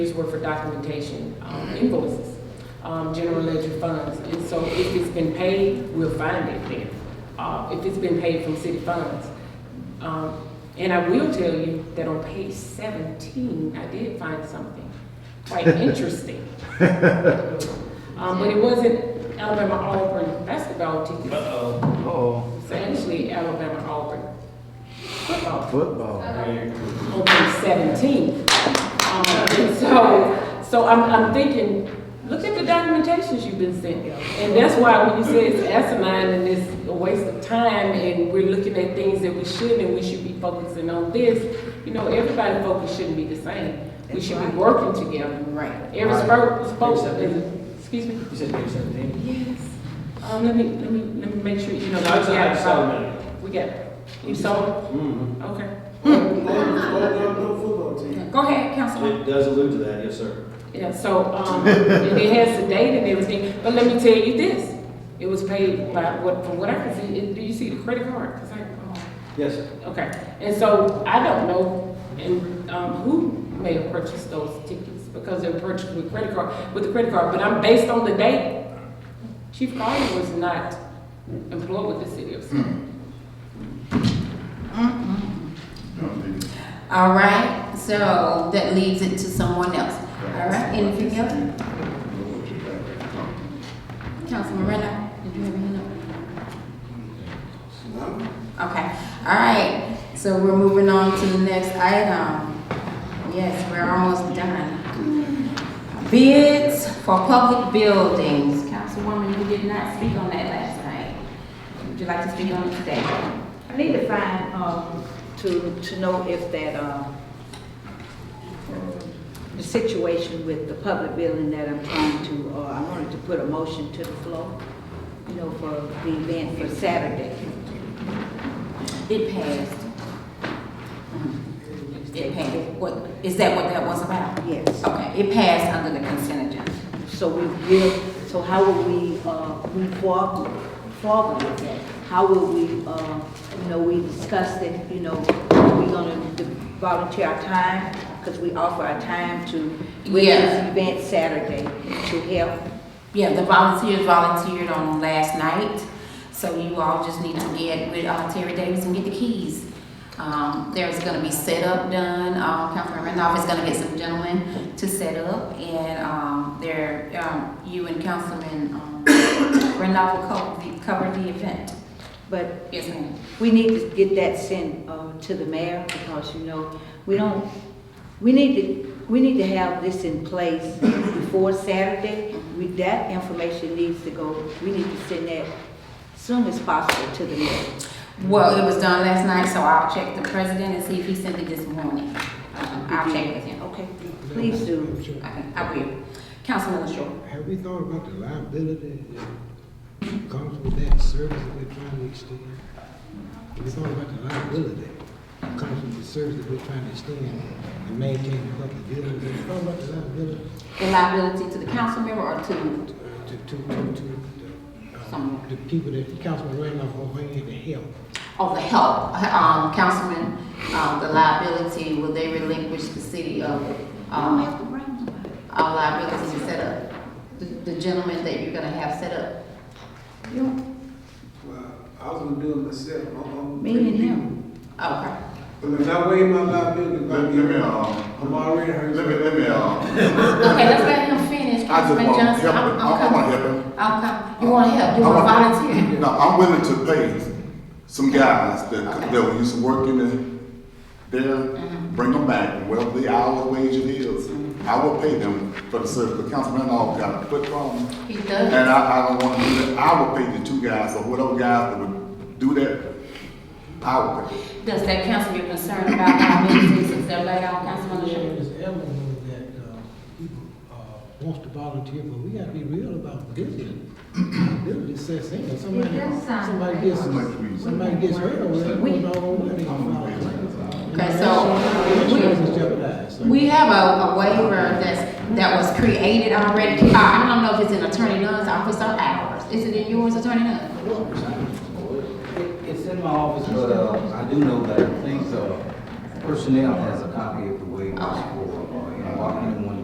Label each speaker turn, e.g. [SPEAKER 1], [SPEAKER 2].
[SPEAKER 1] These were for documentation, um, invoices, um, general ledger funds. And so if it's been paid, we'll find it then, uh, if it's been paid from city funds. Um, and I will tell you that on page seventeen, I did find something quite interesting. Um, but it wasn't Alabama Auburn basketball tickets.
[SPEAKER 2] Uh-oh.
[SPEAKER 3] Oh,
[SPEAKER 1] It's actually Alabama Auburn football
[SPEAKER 3] football.
[SPEAKER 1] on page 17. Um, and Um, So, so I'm, I'm thinking, look at the documentations you've been sent. And that's why when you say it's asinine and it's a waste of time and we're looking at things that we shouldn't and we should be focusing on this, you know, everybody's focus shouldn't be the same. We should be working together. Right. Every spoke, spoke, is- excuse me?
[SPEAKER 2] You said page seventeen?
[SPEAKER 1] Yes. Um, let me, let me, let me make sure, you know.
[SPEAKER 2] No, it's
[SPEAKER 1] we got-
[SPEAKER 2] like seven.
[SPEAKER 1] We got, you sold?
[SPEAKER 2] Mm-hmm.
[SPEAKER 1] Okay.
[SPEAKER 4] football team.
[SPEAKER 1] Go ahead, Councilman.
[SPEAKER 2] It does allude to that, yes, sir.
[SPEAKER 1] Yeah, so, um, and it has the date and everything, but let me tell you this, it was paid by, what, from what I can see, it- do you see the credit card? 'Cause I- oh,
[SPEAKER 2] Yes.
[SPEAKER 1] Okay, and so I don't know, and, um, who may have purchased those tickets, because they were purchased with credit card, with the credit card, but I'm based on the date. Chief Collier was not employed with the city of Smyrna.
[SPEAKER 5] All right, so that leaves it to someone else. All right, anything else? Councilman Renner, did you have your hand up? Okay, all right, so we're moving on to the next item. Yes, we're almost done. Bids for public buildings. Councilwoman, you did not speak on that last night. Would you like to speak on it today?
[SPEAKER 6] I need to find, um, to, to know if that, um, the situation with the public building that I'm trying to, uh, I wanted to put a motion to the floor, you know, for the event for Saturday.
[SPEAKER 5] It passed. It passed. What, is that what that was about?
[SPEAKER 6] Yes.
[SPEAKER 5] Okay, it passed under the consent agenda.
[SPEAKER 6] So we will, so how will we, uh, move forward, forward with that? How will we, uh, you know, we discussed it, you know, we gonna d- volunteer our time? Cause we offer our time to, with
[SPEAKER 5] Yeah.
[SPEAKER 6] this event Saturday, to help
[SPEAKER 5] Yeah, the volunteers volunteered on last night, so you all just need to get with uh, Terry Davis and get the keys. Um, there's gonna be setup done, um, Councilman Randolph is gonna get some gentlemen to set up, and, um, there, um, you and Councilman, um, Randolph will co- cover the event.
[SPEAKER 6] But
[SPEAKER 5] Yes, ma'am.
[SPEAKER 6] we need to get that sent uh, to the mayor because, you know, we don't, we need to, we need to have this in place before Saturday. We, that information needs to go, we need to send that soon as possible to the mayor.
[SPEAKER 5] Well, it was done last night, so I'll check the president and see if he sent it this morning. Um, I'll check with him.
[SPEAKER 6] Okay, please do.
[SPEAKER 5] Okay, I will. Councilman LaShaw.
[SPEAKER 7] Have we thought about the liability that comes with that service that we're trying to extend? Have we thought about the liability that comes with the service that we're trying to extend and maintain the public buildings? Have we thought about the liability
[SPEAKER 5] The liability to the council member or to,
[SPEAKER 7] uh, to, to, to, to, uh,
[SPEAKER 5] Some-
[SPEAKER 7] the people that Councilman Randolph will bring in to help?
[SPEAKER 5] oh, the help, um, councilman, um, the liability, will they relinquish the city of, um,
[SPEAKER 6] to bring nobody.
[SPEAKER 5] our liability to set up? The, the gentleman that you're gonna have set up?
[SPEAKER 4] Well, I was gonna do it myself, I'm, I'm.
[SPEAKER 6] Me and him.
[SPEAKER 5] Okay.
[SPEAKER 4] But if I waive my liability,
[SPEAKER 8] Let
[SPEAKER 4] I'm,
[SPEAKER 8] me, let me,
[SPEAKER 4] I'm
[SPEAKER 8] um,
[SPEAKER 4] already hurt.
[SPEAKER 8] let me, let me, um,
[SPEAKER 5] Okay, let's let him finish,
[SPEAKER 8] I just
[SPEAKER 5] Councilman
[SPEAKER 8] wanna
[SPEAKER 5] Johnson.
[SPEAKER 8] help
[SPEAKER 5] I'm-
[SPEAKER 8] him.
[SPEAKER 5] I'm
[SPEAKER 8] I- I wanna
[SPEAKER 5] coming.
[SPEAKER 8] help him.
[SPEAKER 5] I'll come. You wanna help, you wanna
[SPEAKER 8] I'm-
[SPEAKER 5] volunteer?
[SPEAKER 8] no, I'm willing to pay some guys that, that used to work in the, there, bring them back, whatever the hourly wage it is, I will pay them for the service, the councilman all got a foot problem.
[SPEAKER 5] He
[SPEAKER 8] And
[SPEAKER 5] does.
[SPEAKER 8] I, I don't wanna do that, I will pay the two guys, or whatever guys that would do that, I will pay.
[SPEAKER 5] Does that council be concerned about how many citizens they're laid off, Councilman LaShaw?
[SPEAKER 7] There's an element that, uh, people, uh, wants to volunteer, but we gotta be real about building. Building says, hey, somebody, somebody gets, somebody gets hurt or whatever,
[SPEAKER 5] We-
[SPEAKER 7] we don't want to volunteer.
[SPEAKER 5] Okay, so, we-
[SPEAKER 7] Insurance is jeopardized, so-
[SPEAKER 5] We have a, a waiver that's, that was created already. Uh, I don't know if it's in Attorney Nunn's office or ours. Is it in yours, Attorney Nunn?
[SPEAKER 9] It's in my office, but uh, I do know that I think uh, personnel has a copy of the waivers for, uh, you know, walking in one